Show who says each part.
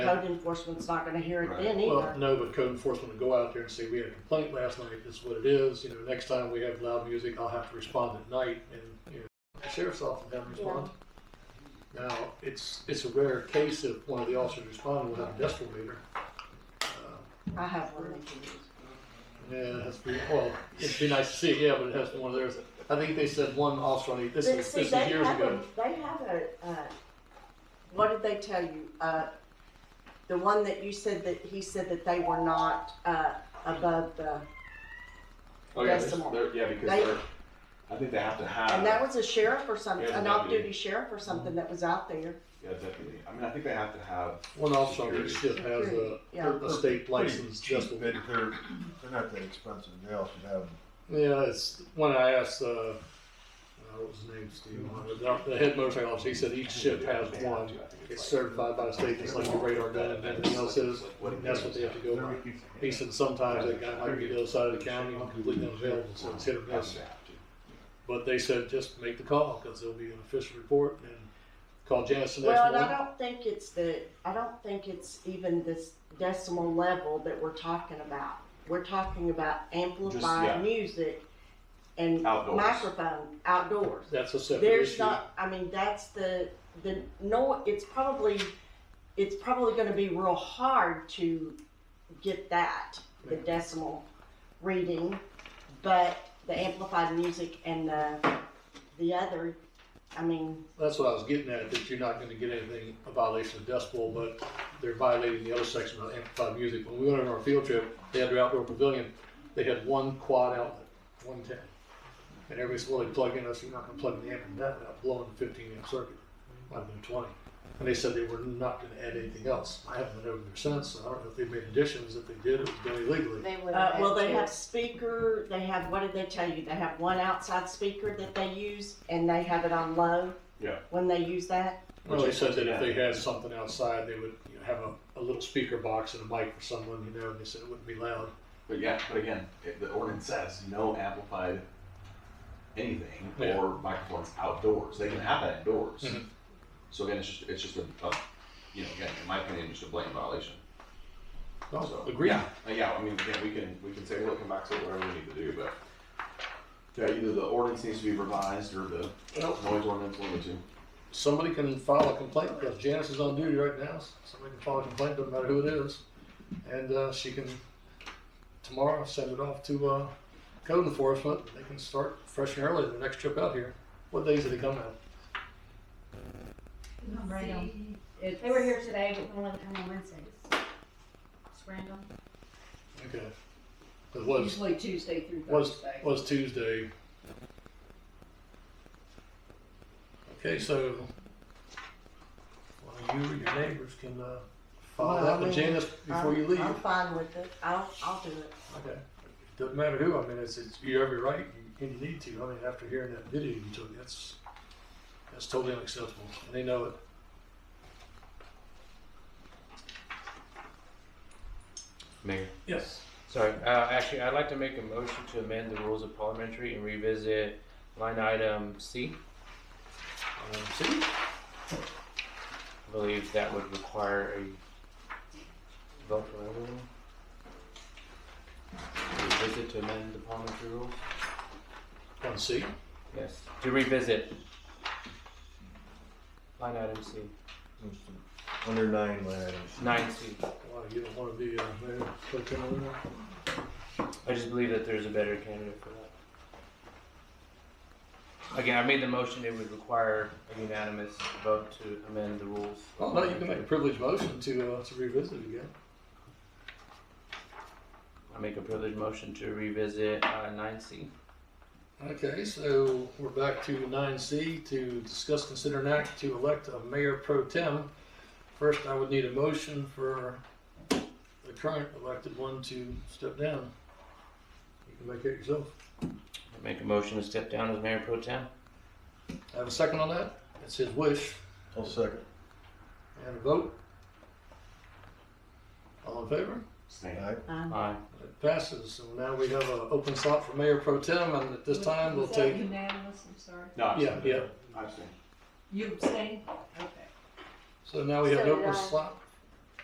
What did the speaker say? Speaker 1: code enforcement's not gonna hear it
Speaker 2: Right.
Speaker 1: then
Speaker 3: Well,
Speaker 1: either.
Speaker 3: no, but code enforcement will go out there and say, we had a complaint last night, this is what it is, you know, next time we have loud music, I'll have to respond at night, and, you know, the sheriff's office have to respond. Now, it's, it's a rare case of one of the officers responding without a decibel meter. Uh,
Speaker 1: I have one.
Speaker 3: Yeah, that's pretty, well, it'd be nice to see, yeah, but it has to be one of theirs, I think they said one officer on each, this
Speaker 1: But
Speaker 3: is,
Speaker 1: see,
Speaker 3: this is
Speaker 1: they
Speaker 3: years
Speaker 1: have
Speaker 3: ago.
Speaker 1: a- They have a, uh, what did they tell you? Uh, the one that you said that, he said that they were not, uh, above the,
Speaker 2: Oh, yeah,
Speaker 1: Decimal.
Speaker 2: they're- yeah, because
Speaker 1: They-
Speaker 2: they're, I think they have to have.
Speaker 1: and that was a sheriff or something,
Speaker 2: Yeah,
Speaker 1: an
Speaker 2: the
Speaker 1: off-duty sheriff or something that was out there.
Speaker 2: Yeah, definitely. I mean, I think they have to have.
Speaker 3: One officer on
Speaker 2: security.
Speaker 3: each ship has a,
Speaker 1: Yeah.
Speaker 3: a state license
Speaker 4: Cheap,
Speaker 3: decibel
Speaker 4: but they're, they're not that expensive, they also have,
Speaker 3: Yeah, it's when I asked, uh, uh, what was his name, Steve, the- the head motorcycle officer, he said each ship has one. It's certified by the state, just like the radar gun and everything else is, and that's what they have to go by. He said sometimes that guy might be the other side of the county, not completely unavailable, so it's hit or miss. But they said just make the call, cause there'll be an official report and call Janice the
Speaker 1: Well,
Speaker 3: next
Speaker 1: and I
Speaker 3: morning.
Speaker 1: don't think it's the, I don't think it's even this decimal level that we're talking about. We're talking about
Speaker 2: yeah.
Speaker 1: amplified music and
Speaker 2: Outdoors.
Speaker 1: microphone outdoors.
Speaker 3: That's a separate
Speaker 1: There's
Speaker 3: issue.
Speaker 1: not, I mean, that's the, the, no, it's probably, it's probably gonna be real hard to get that, the decimal reading, but the amplified music and the, the other, I mean,
Speaker 3: That's what I was getting at, that you're not gonna get anything, a violation of decibel, but they're violating the other section about amplified music. When we went on our field trip, they had their outdoor pavilion, they had one quad outlet, one ten. And everybody's, well, they plug in, I said, you're not gonna plug in the amp in that without blowing the fifteen amp circuit, might have been twenty. And they said they were not gonna add anything else. I haven't been over there since, so I don't know if they made additions, if they did, it was done illegally.
Speaker 5: They would.
Speaker 1: uh, well,
Speaker 5: had
Speaker 1: they
Speaker 5: to.
Speaker 1: have speaker, they have, what did they tell you? They have one outside speaker that they use and they have it on low.
Speaker 2: Yeah.
Speaker 1: When they use that,
Speaker 3: Well, they said that if they had something outside, they would, you know, have a, a little speaker box and a mic for someone, you know, and they said it wouldn't be loud.
Speaker 2: But yeah, but again, it, the ordinance says no amplified anything
Speaker 3: Yeah.
Speaker 2: or microphones outdoors. They can have that indoors.
Speaker 3: Mhm.
Speaker 2: So again, it's just it's just a, a you know again in my opinion just a blatant violation.
Speaker 3: Oh,
Speaker 2: So,
Speaker 3: agreed.
Speaker 2: Yeah, uh, yeah. I mean, again, we can we can say we're looking back to whatever we need to do, but yeah, either the ordinance needs to be revised or the
Speaker 3: Well,
Speaker 2: noise ordinance one or two.
Speaker 3: somebody can file a complaint because Janice is on duty right now. so Somebody can file a complaint, doesn't matter who it is, and uh, she can tomorrow send it off to uh, code enforcement. They can start fresh and early the next trip out here. What days did they come out?
Speaker 6: I'm right on.
Speaker 5: It's-
Speaker 6: They were here today, but no one come on Wednesdays. It's random.
Speaker 3: Okay, it was
Speaker 5: Usually Tuesday through
Speaker 3: was
Speaker 5: Thursday.
Speaker 3: was Tuesday. Okay, so well, you or your neighbors can uh, file
Speaker 1: Well,
Speaker 3: that
Speaker 1: I
Speaker 3: with
Speaker 1: mean,
Speaker 3: Janice before
Speaker 1: I'm,
Speaker 3: you leave.
Speaker 1: I'm fine with it. I'll, I'll do it.
Speaker 3: Okay. Doesn't matter who, I mean, it's, it's, you have your right, you, and you need to, I mean, after hearing that video you took, that's, that's totally unacceptable, and they know it.
Speaker 7: Mayor.
Speaker 3: Yes.
Speaker 7: Sorry, uh, actually, I'd like to make a motion to amend the rules of parliamentary and revisit line item C.
Speaker 3: Um, see,
Speaker 7: I believe that would require a vote for everyone. Revisit to amend the parliamentary rules?
Speaker 3: on C,
Speaker 7: Yes, to revisit. Line item C,
Speaker 4: under nine line items.
Speaker 7: nine C.
Speaker 3: wow, you don't wanna be, uh, mayor, clerk in there.
Speaker 7: I just believe that there's a better candidate for that. Again, I made the motion, it would require a unanimous vote to amend the rules.
Speaker 3: Oh, no, you can make a privileged motion to, uh, to revisit it again.
Speaker 7: I make a privileged motion to revisit uh, nine C.
Speaker 3: Okay, so we're back to nine C to discuss, consider an act to elect a mayor pro tem. First, I would need a motion for the current elected one to step down. You can make it yourself.
Speaker 7: Make a motion to step down as mayor pro tem.
Speaker 3: I Have a second on that? It's his wish.
Speaker 4: I'll second.
Speaker 3: And a vote? All in favor?
Speaker 2: Stand.
Speaker 4: Aye.
Speaker 1: Um,
Speaker 7: Aye.
Speaker 3: It passes. So now we have an open slot for mayor pro tem and at this time we'll
Speaker 6: Was that
Speaker 3: take.
Speaker 6: Unanimous, I'm sorry.
Speaker 2: No, I
Speaker 3: Yeah,
Speaker 2: abstain.
Speaker 3: yeah.
Speaker 2: I abstain.
Speaker 6: You abstained? Okay.
Speaker 3: So now we have an
Speaker 5: So did
Speaker 3: open
Speaker 5: I.
Speaker 3: slot